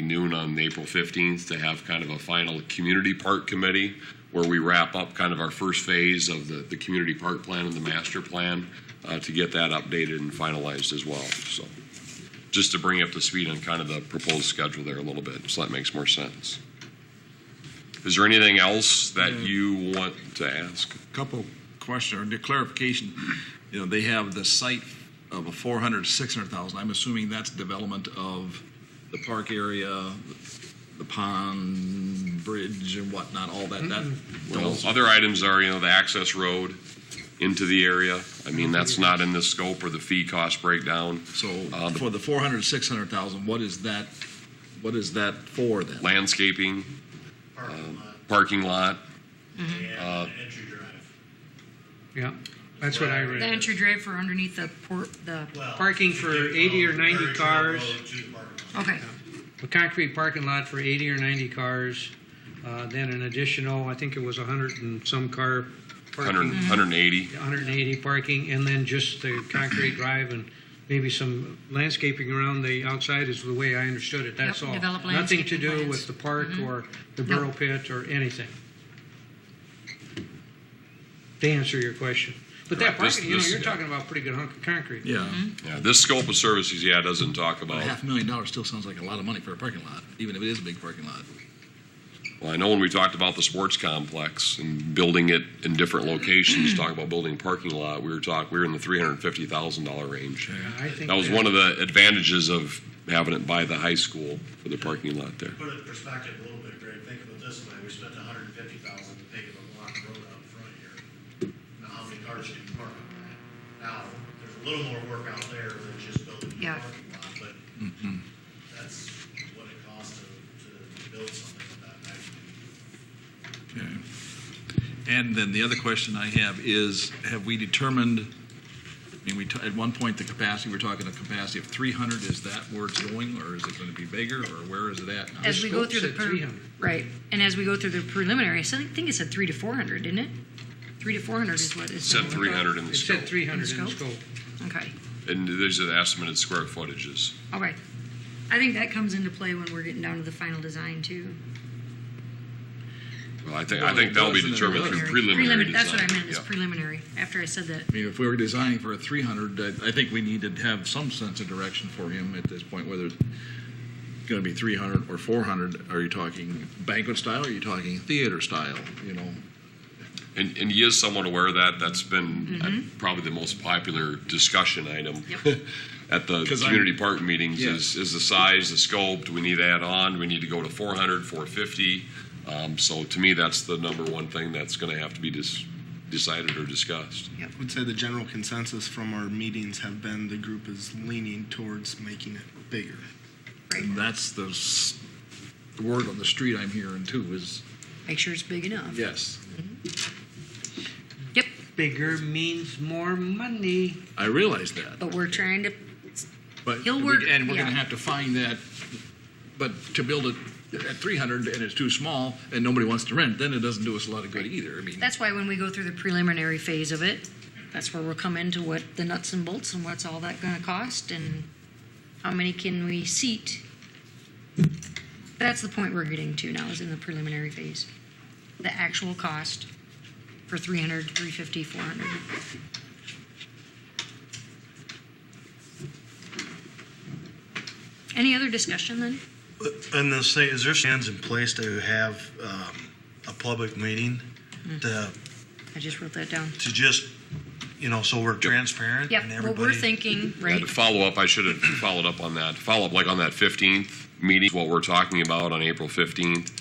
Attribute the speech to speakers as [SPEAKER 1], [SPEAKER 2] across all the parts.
[SPEAKER 1] noon on April 15th to have kind of a final community park committee where we wrap up kind of our first phase of the, the community park plan and the master plan uh, to get that updated and finalized as well. So just to bring up the speed on kind of the proposed schedule there a little bit, so that makes more sense. Is there anything else that you want to ask?
[SPEAKER 2] Couple question or clarification. You know, they have the site of a 400, 600,000. I'm assuming that's development of the park area, the pond, bridge and whatnot, all that, that.
[SPEAKER 1] Well, other items Mm-hmm. are, you know, the access road into the area. I mean, that's not in the scope or the fee cost breakdown.
[SPEAKER 2] So
[SPEAKER 1] Uh, the-
[SPEAKER 2] for the 400, 600,000, what is that, what is that for
[SPEAKER 1] Mm-hmm.
[SPEAKER 2] then?
[SPEAKER 1] Landscaping,
[SPEAKER 3] parking lot
[SPEAKER 1] parking lot,
[SPEAKER 3] Mm-hmm.
[SPEAKER 4] Uh,
[SPEAKER 3] and the entry drive.
[SPEAKER 5] Yeah, that's what I
[SPEAKER 3] The
[SPEAKER 5] read.
[SPEAKER 6] The entry drive for underneath the port, the,
[SPEAKER 3] Well,
[SPEAKER 5] Parking for
[SPEAKER 3] you could
[SPEAKER 5] 80 or
[SPEAKER 3] go
[SPEAKER 5] 90
[SPEAKER 3] very
[SPEAKER 5] cars.
[SPEAKER 3] low to the parking lot.
[SPEAKER 6] okay,
[SPEAKER 5] A concrete parking lot for 80 or 90 cars, uh, then an additional, I think it was 100 and some car parking.
[SPEAKER 1] 100
[SPEAKER 6] Mm-hmm.
[SPEAKER 1] 180.
[SPEAKER 5] 180 parking, and then just the concrete drive and maybe some landscaping around the outside is the way I understood it, that's
[SPEAKER 6] Yep,
[SPEAKER 5] all.
[SPEAKER 6] develop
[SPEAKER 5] Nothing to
[SPEAKER 6] landscaping
[SPEAKER 5] do
[SPEAKER 6] plans. Mm-hmm.
[SPEAKER 5] with the park or the
[SPEAKER 6] No.
[SPEAKER 5] burrow pit or anything. To answer your question. But that
[SPEAKER 1] Correct. This-
[SPEAKER 5] parking, you know,
[SPEAKER 1] this-
[SPEAKER 5] you're talking about a pretty good hunk of concrete.
[SPEAKER 2] Yeah,
[SPEAKER 1] Yeah, this scope of services, yeah, doesn't talk
[SPEAKER 2] a
[SPEAKER 1] about,
[SPEAKER 2] half million dollars still sounds like a lot of money for a parking lot, even if it is a big parking lot.
[SPEAKER 1] well, I know when we talked about the sports complex and building it in different locations,
[SPEAKER 6] Mm-hmm.
[SPEAKER 1] talk about building a parking lot, we were talk, we were in the $350,000 range.
[SPEAKER 5] I think
[SPEAKER 1] That was one of the advantages of having it by the high school for the parking lot there.
[SPEAKER 3] Put it in perspective a little bit, Greg, think of it this way, we spent hundred and fifty thousand to pave a block of road out front here. Now, how many cars can you park on that? Now, there's a little more work out there than just building a
[SPEAKER 6] Yeah.
[SPEAKER 3] parking lot, but
[SPEAKER 4] Mm-hmm.
[SPEAKER 3] that's what it costs to, to build something of that magnitude.
[SPEAKER 2] Okay. And then the other question I have is, have we determined, I mean, we, t- at one point, the capacity, we're talking a capacity of 300, is that where it's going, or is it going to be bigger, or where is it at now?
[SPEAKER 6] as we go
[SPEAKER 5] scope
[SPEAKER 6] through the,
[SPEAKER 5] said
[SPEAKER 6] pre-
[SPEAKER 5] 300.
[SPEAKER 6] right, and as we go through the preliminary, I think it said three to four hundred, didn't it? Three to four hundred is what it
[SPEAKER 1] Said 300 in the
[SPEAKER 5] It
[SPEAKER 1] scope.
[SPEAKER 5] said 300 in the
[SPEAKER 6] Scope?
[SPEAKER 5] scope.
[SPEAKER 6] Okay,
[SPEAKER 1] And these are the estimated square footages.
[SPEAKER 6] okay. I think that comes into play when we're getting down to the final design too.
[SPEAKER 1] Well, I think, I think that'll be
[SPEAKER 2] Well, it
[SPEAKER 1] determined through
[SPEAKER 2] doesn't-
[SPEAKER 1] preliminary
[SPEAKER 6] Prelimin- That's what I
[SPEAKER 1] design.
[SPEAKER 6] meant, is
[SPEAKER 1] Yeah.
[SPEAKER 6] preliminary, after I said that.
[SPEAKER 2] I mean, if we were designing for a 300, I, I think we need to have some sense of direction for him at this point, whether it's going to be 300 or 400. Are you talking banquet style, are you talking theater style, you know?
[SPEAKER 1] And, and he is somewhat aware of that. That's been uh, probably the most popular discussion item
[SPEAKER 6] Yep.
[SPEAKER 1] at the
[SPEAKER 2] 'Cause I'm-
[SPEAKER 1] community park meetings
[SPEAKER 2] Yeah.
[SPEAKER 1] is, is the size, the scope. Do we need to add on? Do we need to go to 400, 450? Um, so to me, that's the number one thing that's going to have to be dis- decided or discussed.
[SPEAKER 7] I would say the general consensus from our meetings have been the group is leaning towards making it bigger.
[SPEAKER 2] And that's the s- the word on the street I'm hearing too, is
[SPEAKER 6] Make sure it's big enough.
[SPEAKER 2] yes.
[SPEAKER 6] Yep,
[SPEAKER 5] Bigger means more money.
[SPEAKER 2] I realize that.
[SPEAKER 6] but we're trying to,
[SPEAKER 2] But
[SPEAKER 6] He'll
[SPEAKER 2] we-
[SPEAKER 6] work-
[SPEAKER 2] and we're going
[SPEAKER 6] yeah.
[SPEAKER 2] to have to find that. But to build it at 300 and it's too small and nobody wants to rent, then it doesn't do us a lot of good either. I mean,
[SPEAKER 6] that's why when we go through the preliminary phase of it, that's where we'll come into what the nuts and bolts and what's all that gonna cost and how many can we seat. That's the point we're getting to now, is in the preliminary phase. The actual cost for 300, 350, 400. Any other discussion then?
[SPEAKER 4] And then say, is there plans in place to have um, a public meeting to,
[SPEAKER 6] I just wrote that down.
[SPEAKER 4] uh, to just, you know, so we're transparent and
[SPEAKER 6] Yep, what we're
[SPEAKER 4] everybody?
[SPEAKER 6] thinking, right?
[SPEAKER 1] And to follow up, I should have followed up on that. Follow up, like on that 15th meeting, what we're talking about on April 15th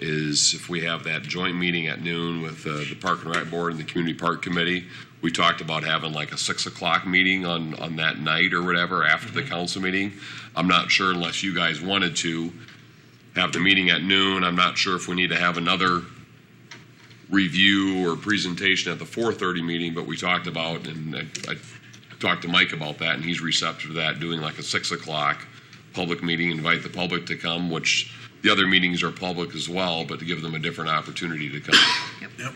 [SPEAKER 1] is if we have that joint meeting at noon with uh, the Park and Rec Board and the Community Park Committee, we talked about having like a 6 o'clock meeting on, on that night or whatever after the council meeting. I'm not sure unless you guys wanted to have the meeting at noon. I'm not sure if we need to have another review or presentation at the 4:30 meeting, but we talked about, and I I talked to Mike about that, and he's receptive to that, doing like a 6 o'clock public meeting, invite the public to come, which the other meetings are public as well, but to give them a different opportunity to come.
[SPEAKER 4] Yep.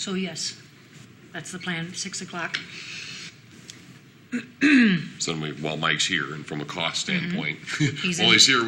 [SPEAKER 6] So yes, that's the plan, 6 o'clock.
[SPEAKER 1] So then we- while Mike's here, and from a cost standpoint,
[SPEAKER 6] He's
[SPEAKER 1] while
[SPEAKER 6] in-
[SPEAKER 1] he's here,